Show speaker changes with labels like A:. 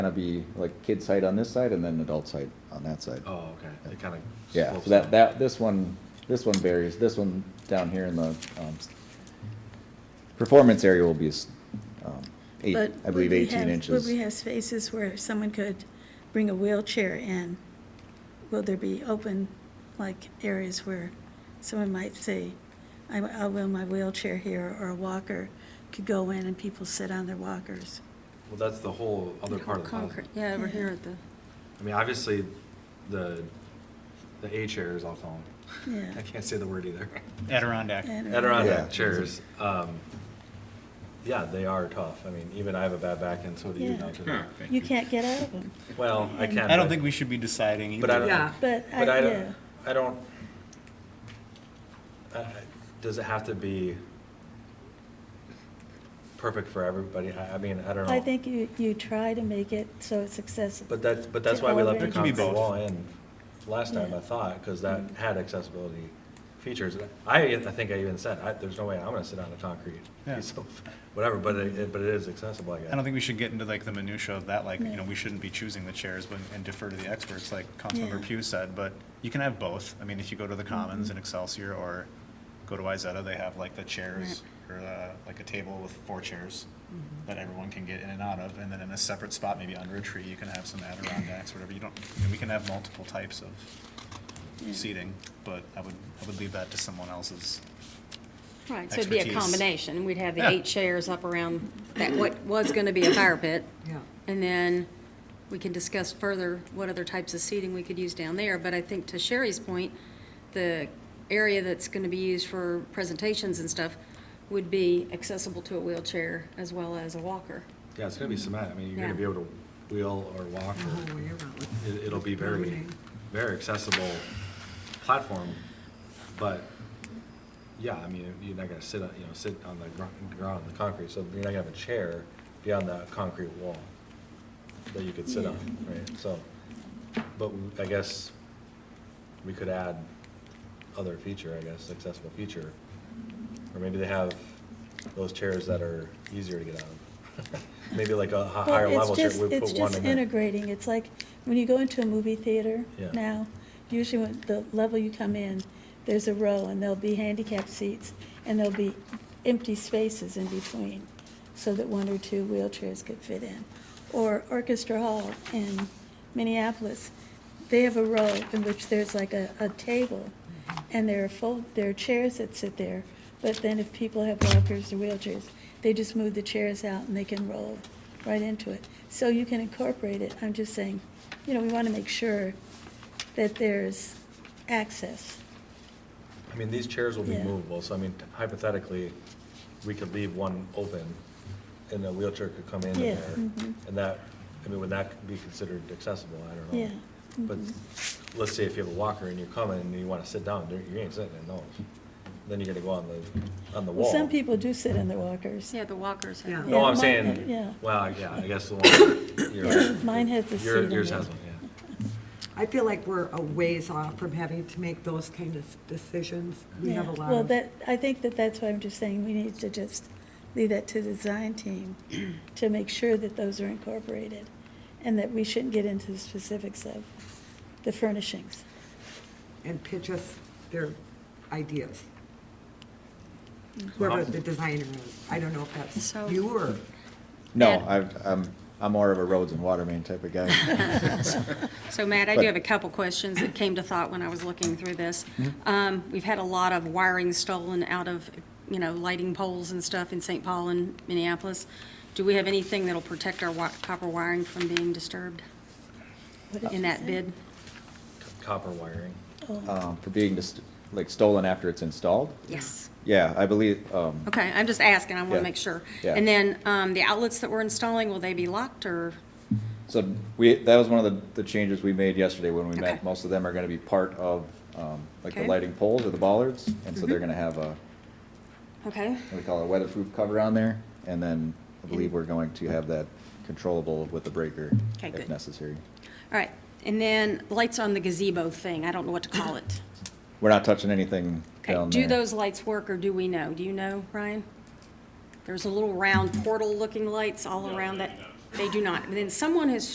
A: gonna be like kid site on this side and then adult site on that side.
B: Oh, okay, it kind of.
A: Yeah, so that, that, this one, this one varies, this one down here in the, um, s- performance area will be, s- um, eight,
C: But
A: I believe
C: would we
A: eighteen
C: have-
A: inches.
C: Would we have spaces where someone could bring a wheelchair in? Will there be open, like, areas where someone might say, I, I will my wheelchair here, or a walker could go in and people sit on their walkers?
B: Well, that's the whole other part of the puzzle.
D: Concrete, yeah, over
C: Yeah.
D: here at the,
B: I mean, obviously, the, the A chairs, I'll call them.
C: Yeah.
B: I can't say the word either.
E: Adirondack.
C: And-
A: Yeah.
B: Adirondack chairs, um, yeah, they are tough. I mean, even I have a bad back and so do you
C: Yeah.
B: now today.
C: You can't get out of them,
B: Well, I can.
E: I don't
B: but-
E: think we should be deciding either.
B: But I don't.
D: Yeah.
C: but I,
B: But I
C: yeah,
B: don't, I don't, I- I- does it have to be perfect for everybody? I, I mean, I don't know.
C: I think you, you try to make it so it's accessible.
B: But that's, but that's
C: to
B: why we
C: all
B: left the
C: ranges.
E: It can be
B: concrete
E: both.
B: wall in last time,
C: Yeah.
B: I thought, because that had accessibility features. I, I think I even said, I, there's no way I'm gonna sit on a concrete
E: Yeah.
B: piece of, whatever, but it, it- but it is accessible, I
E: I don't
B: guess.
E: think we should get into like the minutia of that, like, you know,
C: No.
E: we shouldn't be choosing the chairs but- and defer to the experts, like Councilmember
C: Yeah. Mm-hmm.
E: Pugh said, but you can have both. I mean, if you go to the Commons in Excelsior or go to Izetta, they have like the chairs or uh, like a table with four chairs
C: Mm-hmm.
E: that everyone can get in and out of, and then in a separate spot, maybe under a tree, you can have some Adirondacks, whatever, you don't, and we can have multiple types of
C: Yeah.
E: seating, but I would, I would leave that to someone else's.
D: right, so it'd be a
E: Expertise.
D: combination. We'd have the
E: Yeah.
D: eight chairs up around that, what was gonna be a fire pit.
F: Yeah.
D: And then we can discuss further what other types of seating we could use down there. But I think to Sherry's point, the area that's gonna be used for presentations and stuff would be accessible to a wheelchair as well as a walker.
B: Yeah, it's gonna be cement. I mean, you're gonna
D: Yeah.
B: be able to wheel or walk
F: The whole
B: or,
F: way around with-
B: it, it'll be
F: with
B: very,
F: loading.
B: very accessible platform. But, yeah, I mean, you're not gonna sit on, you know, sit on the gro- ground, on the concrete, so you're not gonna have a chair beyond that concrete wall that you could sit on, right? So, but w- I guess we could add other feature, I guess, accessible feature. Or maybe they have those chairs that are easier to get out of. Maybe like a hi-
C: Well,
B: higher
C: it's
B: level chair,
C: just-
B: we
C: It's
B: put one
C: just
B: in there.
C: integrating, it's like, when you go into a movie theater
B: Yeah.
C: now, usually when the level you come in, there's a row, and there'll be handicapped seats, and there'll be empty spaces in between, so that one or two wheelchairs could fit in. Or Orchestra Hall in Minneapolis, they have a row in which there's like a, a table, and there are fold, there are chairs that sit there, but then if people have walkers or wheelchairs, they just move the chairs out and they can roll right into it. So you can incorporate it, I'm just saying, you know, we want to make sure that there's access.
B: I mean, these chairs will be
C: Yeah.
B: movable, so I mean hypothetically, we could leave one open and a wheelchair could come in
C: Yeah,
B: in there.
C: mhm.
B: And that, I mean, would that be considered accessible? I don't know.
C: Yeah, Mm-hmm.
B: But let's say if you have a walker and you're coming and you wanna sit down, you ain't sitting in those. Then you're gonna go on the, on the wall.
C: Well, some people do sit in their walkers.
D: Yeah, the walkers.
F: Yeah.
D: have-
B: No,
C: Yeah,
B: I'm
C: mine
B: saying,
C: have- yeah.
B: well, yeah, I guess the one,
C: Yeah,
B: your,
C: Mine has the seat.
B: your-
C: on
B: yours
C: it.
B: has one, yeah.
F: I feel like we're a ways off from having to make those kind of decisions. We have a
C: Yeah,
F: lot
C: Well,
F: of,
C: that, I think that that's why I'm just saying, we need to just leave that to the design team to make sure that those are incorporated, and that we shouldn't get into the specifics of the furnishings.
F: and pitch us their ideas. Whoever the designer is, I don't know if that's
D: So-
F: you or,
A: No,
D: Yeah.
A: I've, I'm, I'm more of a roads and water main type of guy.
D: So Matt, I do
A: But-
D: have a couple questions that came to thought when I was looking through this.
A: Mm-hmm.
D: Um, We've had a lot of wiring stolen out of, you know, lighting poles and stuff in St. Paul and Minneapolis. Do we have anything that'll protect our wi- copper wiring from being disturbed
C: What did
D: in
C: you
D: that
C: say?
D: bid?
B: Copper wiring.
C: Oh.
A: Um, for being just, like stolen after it's installed.
D: Yes.
A: Yeah, I believe, um,
D: Okay, I'm just asking, I want
A: Yeah.
D: to make sure.
A: Yeah.
D: And then um, the outlets that we're installing, will they be locked or?
A: So we, that was one of the, the changes we made yesterday when we
D: Okay.
A: met. Most of them are gonna be part of, um, like the
D: Okay. Mm-hmm.
A: lighting poles or the bollards. And so they're gonna have a,
D: Okay,
A: what do we call it, a weatherproof cover on there. And then I believe we're going to have that controllable with the breaker
D: Okay,
A: if
D: good.
A: necessary.
D: all right. And then lights on the gazebo thing, I don't know what to call it.
A: We're not touching anything
D: Okay,
A: down there.
D: do those lights work, or do we know? Do you know, Ryan? There's a little round portal-looking lights all around that. They do not. And then someone has